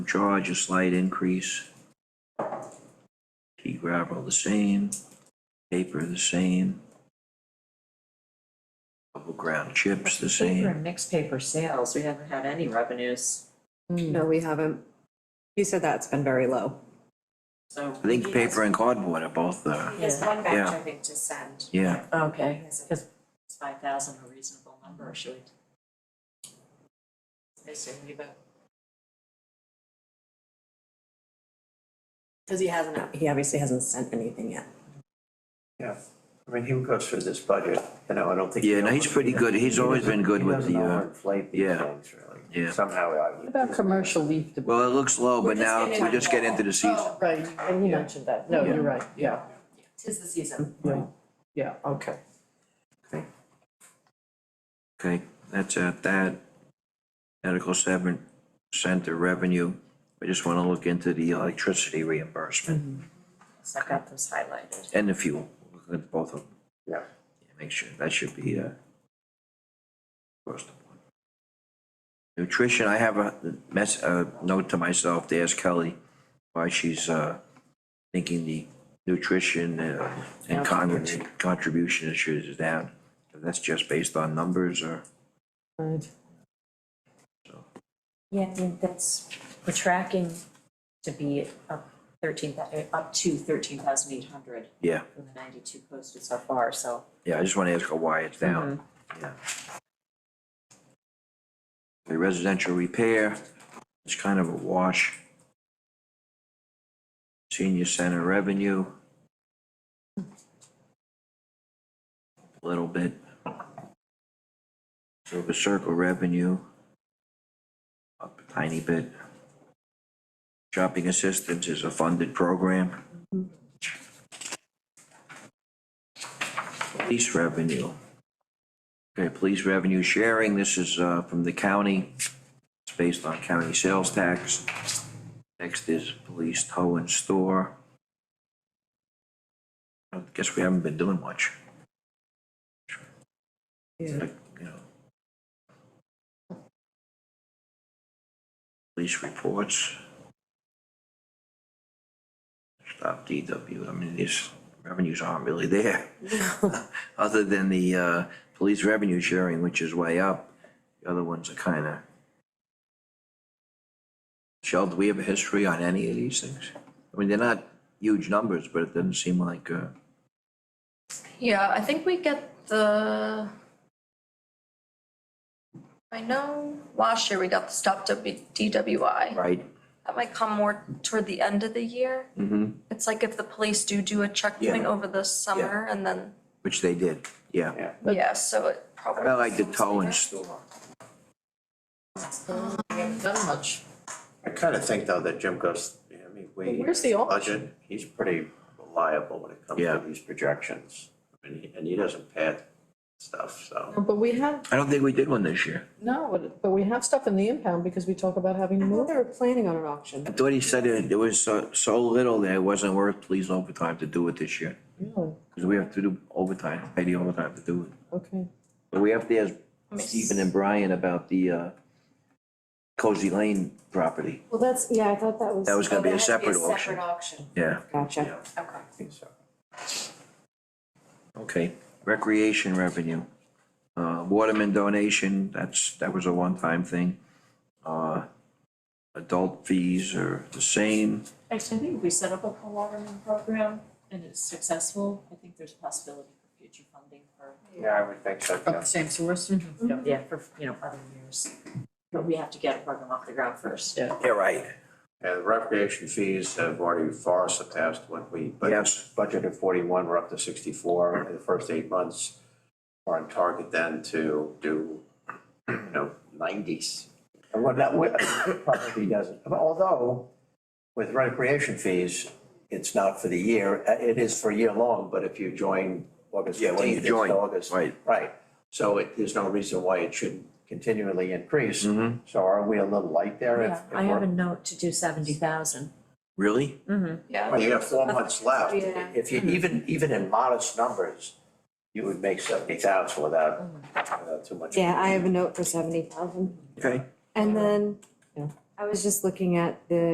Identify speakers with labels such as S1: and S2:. S1: charge a slight increase. Sheet gravel the same, paper the same. Double ground chips the
S2: Paper
S1: same.
S2: and mixed paper sales, we haven't had any revenues,
S3: No, we haven't. He said that's been very low.
S2: so.
S1: I think paper and cardboard are both uh, the,
S4: He has one
S1: Yeah.
S4: batch, I think, to send.
S1: yeah,
S2: Okay,
S4: Is
S2: because it's five thousand a reasonable number, or should we? I say leave it.
S3: Because he hasn't, he obviously hasn't sent anything yet.
S5: Yeah, I mean, he goes through this budget, you know, I don't think. he
S1: Yeah, no, he's
S5: over-
S1: pretty good. He's
S5: he
S1: always
S5: doesn't-
S1: been good
S5: he
S1: with
S5: doesn't
S1: the, uh,
S5: overinflate these
S1: yeah,
S5: things, really.
S1: yeah.
S5: Somehow I would.
S6: About commercial leaf debris,
S1: well, it looks low, but
S4: We're just
S1: now
S4: getting
S1: we
S4: into
S1: just get into the season.
S6: right, and you mentioned that, no, you're right, yeah,
S4: Tis the season.
S6: yeah, yeah, okay.
S1: Okay, that's at that. Medical seven center revenue. I just wanna look into the electricity reimbursement
S2: So I've got those highlighted.
S1: and the fuel, Look at both of them.
S5: Yeah.
S1: Make sure, that should be, uh, across the board. Nutrition, I have a mess, a note to myself to ask Kelly why she's, uh, thinking the nutrition uh, and con- contribution issues is down. If That's just based on numbers or?
S6: Right.
S2: Yeah, I mean, that's, we're tracking to be up thirteen, thou- up to thirteen thousand eight hundred
S1: Yeah,
S2: from the ninety-two posted so far, so.
S1: yeah, I just want to ask her why it's down, yeah. The residential repair is kind of a wash. Senior center revenue. a Little bit. Silver Circle revenue. Up a tiny bit. Shopping assistance is a funded program. Police revenue. Okay, police revenue sharing, this is uh, from the county. It's based on county sales tax. Next is police tow and store. I guess we haven't been doing much. It's like, you know. Police reports. Stop DW, I mean, these revenues aren't really there other than the uh, police revenue sharing, which is way up, the other ones are kind of. Shell, do we have a history on any of these things? I mean, they're not huge numbers, but it doesn't seem like, uh,
S4: Yeah, I think we get the. I know last year we got the stopped up DWI.
S1: right?
S4: That might come more toward the end of the year.
S1: Mm-hmm.
S4: It's like if the police do do a checkpoint
S1: Yeah.
S4: over the summer and then,
S1: Which they did, yeah.
S5: Yeah.
S4: yeah, so it probably.
S1: I like the tow and store.
S6: Done much.
S5: I kind of think though that Jim goes, I mean, we.
S6: Where's the old-
S5: Budget, he's pretty reliable when it comes
S1: Yeah.
S5: to these projections. I mean, he- and he doesn't pad stuff, so.
S6: But we have,
S1: I don't think we did one this year.
S6: no, but we have stuff in the impound because we talk about having to
S3: Well,
S6: move.
S3: they were planning on an
S1: I
S3: auction.
S1: thought he said it, there was so, so little that it wasn't worth police overtime to do it this year.
S6: Really?
S1: Because we have to do overtime, pay the overtime to do it.
S6: Okay.
S1: But we have to ask Stephen and Brian about the uh, Cozy Lane property.
S3: Well, that's, yeah, I thought that was.
S1: That was gonna be a separate
S4: Separate
S1: auction.
S4: auction,
S1: Yeah,
S3: Gotcha.
S5: Yeah,
S4: okay.
S5: I think so.
S1: okay. Recreation revenue. Uh, Waterman donation, that's, that was a one-time thing. Uh, Adult fees are the same.
S2: Actually, I think we set up a co-watering program and it's successful. I think there's a possibility for future funding for.
S5: Yeah, I would think so, yeah.
S6: Same source?
S2: Yeah, for, you know, other years. But we have to get a program off the ground first.
S6: Yeah.
S1: Yeah, right.
S5: Yeah, the recreation fees have already far surpassed what we budgeted.
S1: Yes.
S5: Budgeted forty-one, we're up to sixty-four in the first eight months. We're on target then to do, you know, nineties. And what that, what- probably doesn't, although with recreation fees, it's not for the year, Uh, it is for year long, but if you join August
S1: Yeah, when you
S5: fifteenth, it's
S1: join,
S5: August.
S1: right.
S5: Right, so it, there's no reason why it shouldn't continually increase.
S1: Mhm.
S5: So are we a little light there? if-
S2: Yeah,
S5: if
S2: I have
S5: we're-
S2: a note to do seventy thousand.
S1: Really?
S4: Yeah.
S5: Well, you have four months left.
S3: Yeah.
S5: If you, even, even in modest numbers, you would make seventy thousand without, without too much.
S3: Yeah, I have a note for seventy thousand.
S1: Okay.
S3: And then
S6: Yeah.
S3: I
S6: I was just looking at the